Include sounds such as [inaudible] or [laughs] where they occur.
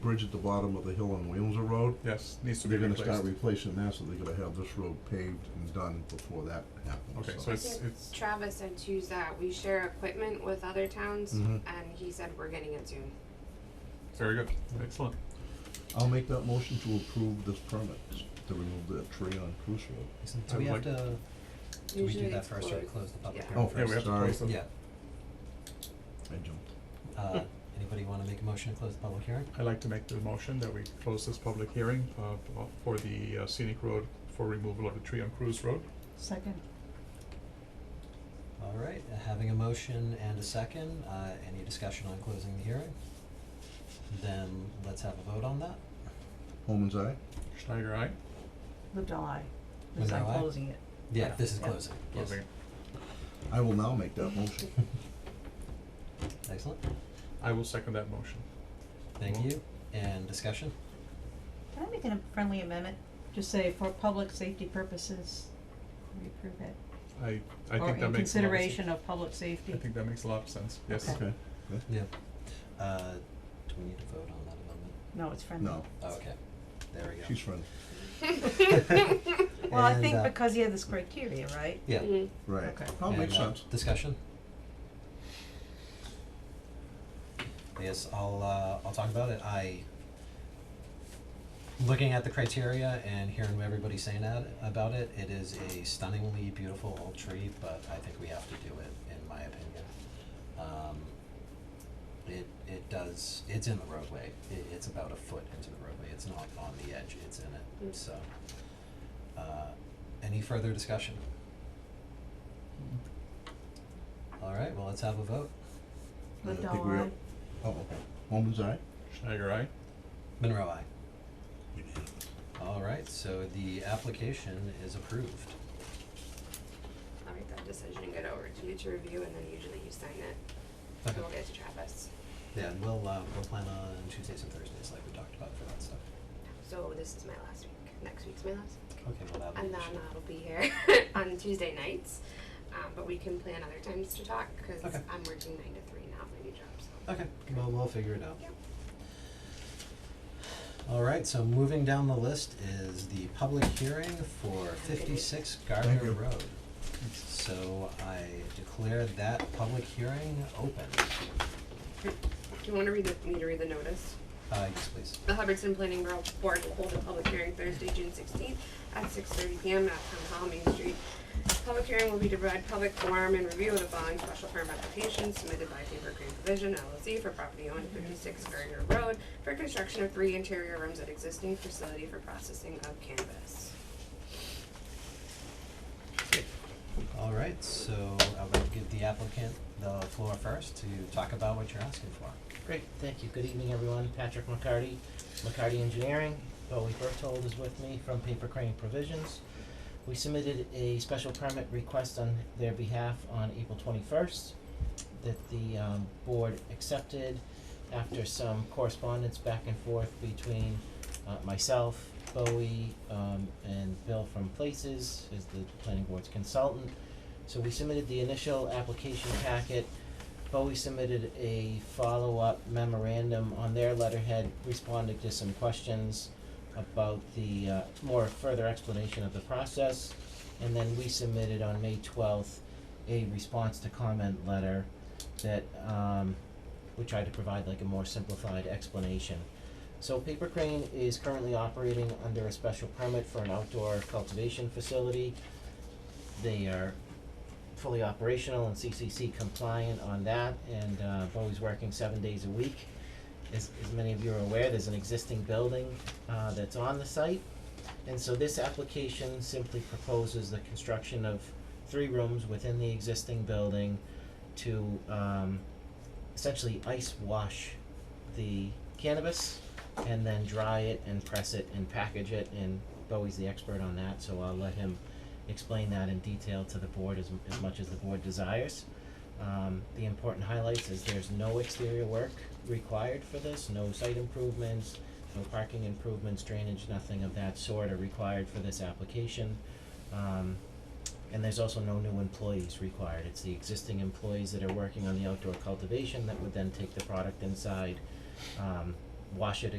bridge at the bottom of the hill on Williamsville Road, Yes, needs to be they're gonna replaced. start replacing that, so they're gonna have this road paved and done before that happens, Okay, so it's, it's, Travis said too is that we share equipment with other towns, Mm-hmm. Mhm. and he said we're getting it soon. very good, excellent. I'll make that motion to approve this permit, to remove the tree on Cruise Road. Isn't, I do we have would to, do we Usually do that it's first or closed. close the public Yeah. hearing Oh, first? Yeah, we have to Sorry. close them. Yeah, I jumped. [laughs] uh, anybody wanna make a motion to close the public hearing? I'd like to make the motion that we close this public hearing, uh, for the uh, scenic road, for removal of a tree on Cruise Road. Second. Alright, uh, having a motion and a second, uh, any discussion on closing the hearing? Then let's have a vote on that. Holman's eye? Schneider, aye? Livedall aye. Was Because I'm that aye? closing it. Yeah, Yeah. this is Yeah. closing, yes, Closing. I will now make that motion. [laughs] excellent, I will second that motion. thank Well- you, and discussion, Can I make a friendly amendment? Just say for public safety purposes, we approve it. I, I think that Or in makes a lot of sense. consideration of public safety. I think that makes a lot of sense, yes. Okay. yeah. Uh, do we need to vote on that amendment? No, it's friendly. No, Oh, Okay, there we go. she's friendly, [laughs] Well, I And, think uh, because you have this criteria, right? Yeah, Mhm. right. Okay. Oh, And, makes uh, sense. Discussion? Yes, I'll, uh, I'll talk about it, I, looking at the criteria and hearing what everybody's saying at, about it, it is a stunningly beautiful old tree, but I think we have to do it, in my opinion. Um, it, it does, it's in the roadway, it, it's about a foot into the roadway, it's not on the edge, it's in Mm. it, so. Uh, any further discussion? Alright, well, let's have a vote. Yeah, I Livedall think we are- aye. Oh, okay. Holman's eye? Schneider, aye? Monroe, aye. Alright, so the application is approved. I'll make that decision and get it over to you to review, and then usually you sign it. So Okay. we'll get to Travis. Yeah, and we'll, uh, we'll plan on Tuesdays and Thursdays like we talked about for that stuff. So this is my last week. Next week's my last, week. Okay, well, that'll be and an then issue. I'll be here [laughs] on Tuesday nights. Um, but we can plan other times to talk because Okay. I'm working nine to three now at my new job. So. Okay, well, we'll figure it out. Yep. Alright, so moving down the list is the public hearing for fifty-six Gardner you. Road. So I declare that public hearing open. Do you want to read the, me to read the notice? Uh, yes, please. The Hubbardston Planning Bureau Board will hold a public hearing Thursday, June sixteenth at six thirty PM at Town Hall, Main Street. Public hearing will be to provide public forum and review of the following special permit application submitted by Faber Green Division LLC for property owned fifty-six Gardner Road for construction of three interior rooms at existing facility for processing of cannabis. Alright, so I would give the applicant the floor first to talk about what you're asking for. Great, thank you. Good evening, everyone. Patrick McCarty, McCarty Engineering. Bowie Berthold is with me from Paper Crane Provisions. We submitted a special permit request on their behalf on April twenty-first that the, um, board accepted after some correspondence back and forth between, uh, myself, Bowie, um, and Bill from Places, is the planning board's consultant. So we submitted the initial application packet Bowie submitted a follow-up memorandum on their letterhead responding to some questions about the, uh, more further explanation of the process. And then we submitted on May twelfth a response to comment letter that, um, we tried to provide like a more simplified explanation. So Paper Crane is currently operating under a special permit for an outdoor cultivation facility. They are fully operational and CCC compliant on that, and uh, Bowie's working seven days a week. As, as many of you are aware, there's an existing building uh, that's on the site. And so this application simply proposes the construction of three rooms within the existing building to um, essentially ice wash the cannabis and then dry it and press it and package it. And Bowie's the expert on that, so I'll let him explain that in detail to the board as, as much as the board desires. Um, the important highlights is there's no exterior work required for this, no site improvements, no parking improvements, drainage, nothing of that sort are required for this application. Um, and there's also no new employees required. It's the existing employees that are working on the outdoor cultivation that would then take the product inside, um, wash it